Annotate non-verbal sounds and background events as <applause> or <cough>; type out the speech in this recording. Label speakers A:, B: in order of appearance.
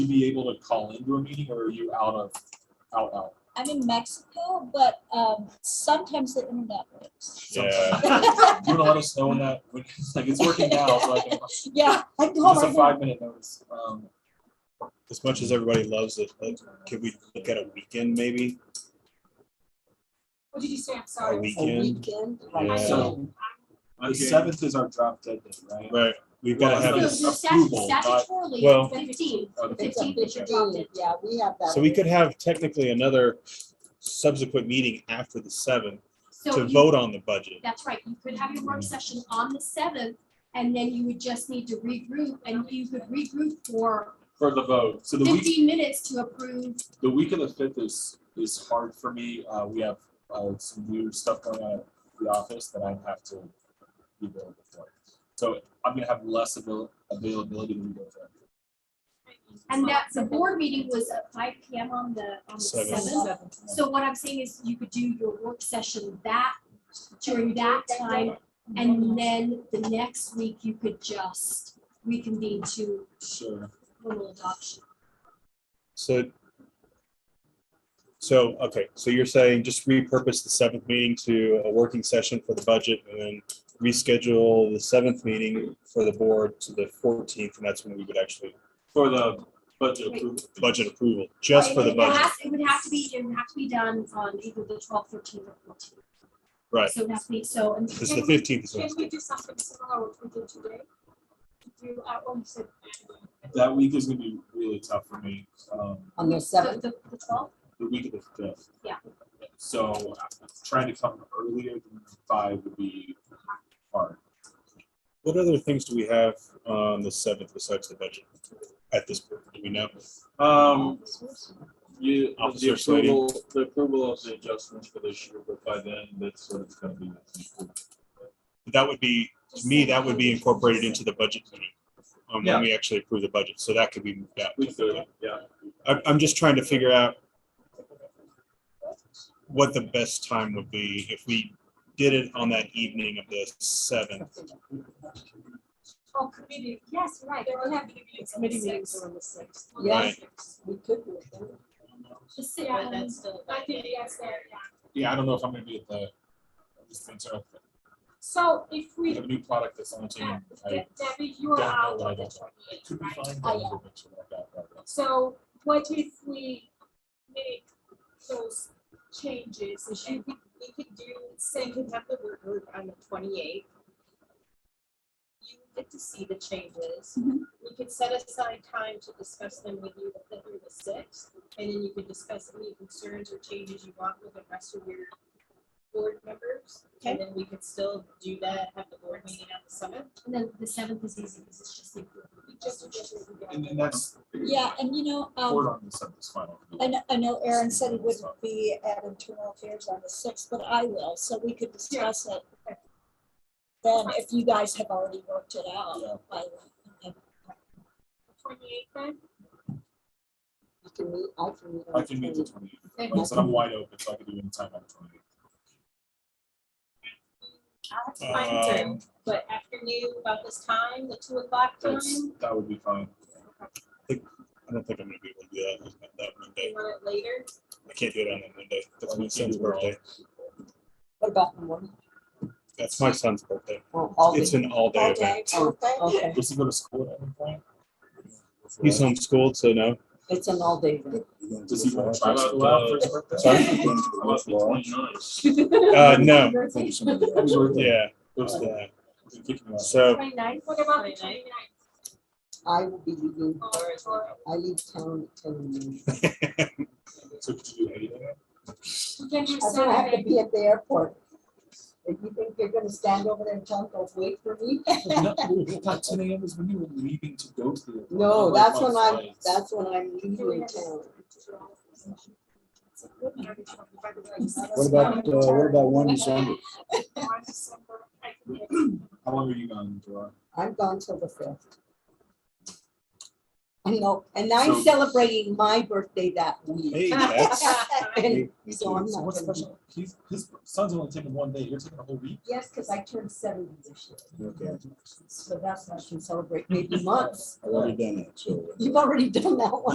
A: you be able to call into a meeting or are you out of, out, out?
B: I'm in Mexico, but um, sometimes the internet works.
A: <laughs> sometime? You wanna let us know when that, when, <laughs> like, it's working now, so I can, it's
B: yeah, I can call
A: a
B: my
A: five minute notice. Um,
C: As much as everybody loves it, like, could we look at a weekend maybe?
D: What did you say? I'm
C: A
D: sorry.
C: weekend?
D: I
C: Yeah.
A: So,
D: mean,
A: the seventh is our drop dead day, right?
C: Right, we've gotta
A: Well,
C: have,
A: it's
C: it.
A: not- approval, not-
C: Well-
E: Statutorily, fifteen.
A: Oh, the
E: Fifteen. is your drop dead.
D: Yeah, we have that.
C: so we could have technically another subsequent meeting after the seventh
E: So
C: to
E: you,
C: vote on the budget.
E: that's right, you could have your work session on the seventh, and then you would just need to regroup, and you could regroup for
A: For the vote. So the week,
E: fifteen minutes to approve.
A: the week of the fifth is, is hard for me. Uh, we have, uh, some weird stuff going on at the office that I have to be available for. So I'm gonna have less avail- availability than we go for.
E: And that, the board meeting was at five P M on the, on the
C: Seven.
E: seventh. So what I'm saying is you could do your work session that, during that time, and then the next week you could just reconvene to
A: Sure.
E: formal adoption.
C: So, so, okay, so you're saying just repurpose the seventh meeting to a working session for the budget and then reschedule the seventh meeting for the board to the fourteenth, and that's when we would actually
A: For the budget approval.
C: budget approval, just for the
E: It would
C: budget.
E: have- It would have to be, it would have to be done on either the twelfth, thirteenth, or fourteenth.
C: Right.
E: So that's me, so, and
C: Because the fifteenth is
D: Can
C: Wednesday.
D: we do something similar what we did today? Do, uh, oh, you said.
A: That week is gonna be really tough for me, um,
F: on the
E: the,
F: seventh.
E: the twelfth,
A: the week of the fifth.
E: Yeah.
A: So trying to come earlier than five would be hard.
C: What other things do we have on the seventh besides the budget at this point? Do we know?
A: Um, you, um, the
C: Officer Slady.
A: approval, the approval of the adjustments for this year, but by then, that's what it's gonna be.
C: That would be, to me, that would be incorporated into the budget meeting. Um,
A: Yeah.
C: when we actually approve the budget, so that could be moved out.
A: We could, yeah.
C: I'm, I'm just trying to figure out what the best time would be if we did it on that evening of the seventh.
D: Oh, committee,
E: yes, right,
D: there will have to be meetings on the
F: Committee meetings
D: sixth.
F: are on the sixth.
D: On the
F: Yes,
D: sixth.
F: we could do it. then.
E: the sixth,
D: Yeah,
E: um,
D: that's I think that's there, yeah.
A: Yeah, I don't know if I'm gonna be at the, I'm just concerned,
D: So if
A: I
D: we,
A: have a new product that's on the
D: uh,
A: team. I
D: De- Debbie, you are
A: Don't know
D: out
A: what I
D: on the
A: don't
D: twenty-eighth,
A: couldn't
D: right?
A: find
B: Oh,
A: that
B: yeah.
A: information I got about that.
D: So what if we make those changes? and
G: We could, we could do, say, we have the work group on the twenty-eighth. You get to see the changes. We could set aside time to discuss them with you the fifth or the sixth, and then you could discuss any concerns or changes you want with the rest of your board members. And then we could still do that, have the board meeting on the seventh.
E: and then the seventh is easy, because it's just the.
G: Just- just-
A: And, and that's.
B: Yeah, and you know,
A: Court
B: um,
A: on this at this final.
B: I know, I know Aaron said he wouldn't be at internal affairs on the sixth, but I will, so we could discuss it. Then if you guys have already worked it
A: Yeah.
B: out. by then.
D: Twenty-eighth then?
F: You can meet, I can meet. on
A: I can meet the
F: 20th.
A: twenty eighth. Like I said, I'm wide open, so I can do any time on the twenty eighth.
G: I'll have to
C: Uh,
G: find
C: Um,
G: time, but afternoon about this time, the two o'clock time,
A: That's,
F: Um,
A: that would be fine.
C: I don't think I'm gonna be able to do that on that
G: you
C: Monday.
G: want it later?
C: I can't do it on that Monday. That's
A: Like,
C: my
A: you
C: son's
A: do it all.
C: birthday.
F: What about the morning?
C: That's my son's birthday.
F: Oh, all
C: It's
F: day.
C: an all day
B: All
C: event.
B: day.
F: Oh, Okay,
A: Does he go to school at any point?
C: He's homeschooled, so no.
F: it's an all day event.
A: Does he want to try to go out for his birthday?
C: Sorry?
A: About the 29th.
C: Uh, no,
F: <laughs>
A: Happy birthday.
C: yeah,
A: Go to school.
C: yeah.
A: We can kick him out.
C: So
E: Twenty-ninth,
D: What about the
G: 29th?
D: 29th?
F: I will be leaving,
D: Or, or
F: I leave town at ten in the morning.
C: <laughs>
A: So could you do
F: <laughs>
A: anything?
D: we can do
F: I'm gonna have to
D: Saturday?
F: be at the airport. If you think you're gonna stand over there and tell them, "Go wait for me. <laughs>
A: No, not ten AM is when you were leaving to go to the.
F: No, that's
A: Like,
F: when
A: on
F: I'm,
A: flights.
F: that's when I'm leaving town.
D: What
C: uh,
G: <laughs>
H: about one December?
D: On December, I can make-
A: How long are you gone, Joy?
F: I'm gone till the fifth. I know, and I'm
A: So-
F: celebrating my birthday that week.
C: hey,
F: <laughs>
C: that's
G: <laughs>
F: And so I'm not
A: What's
F: gonna be-
A: special? He's, his son's only taking one day, you're taking a whole week.
F: Yes, because I turned seventy this year.
H: Okay.
F: So that's, I should celebrate maybe months.
H: I've already done that, so. uh,
F: You've already done that one.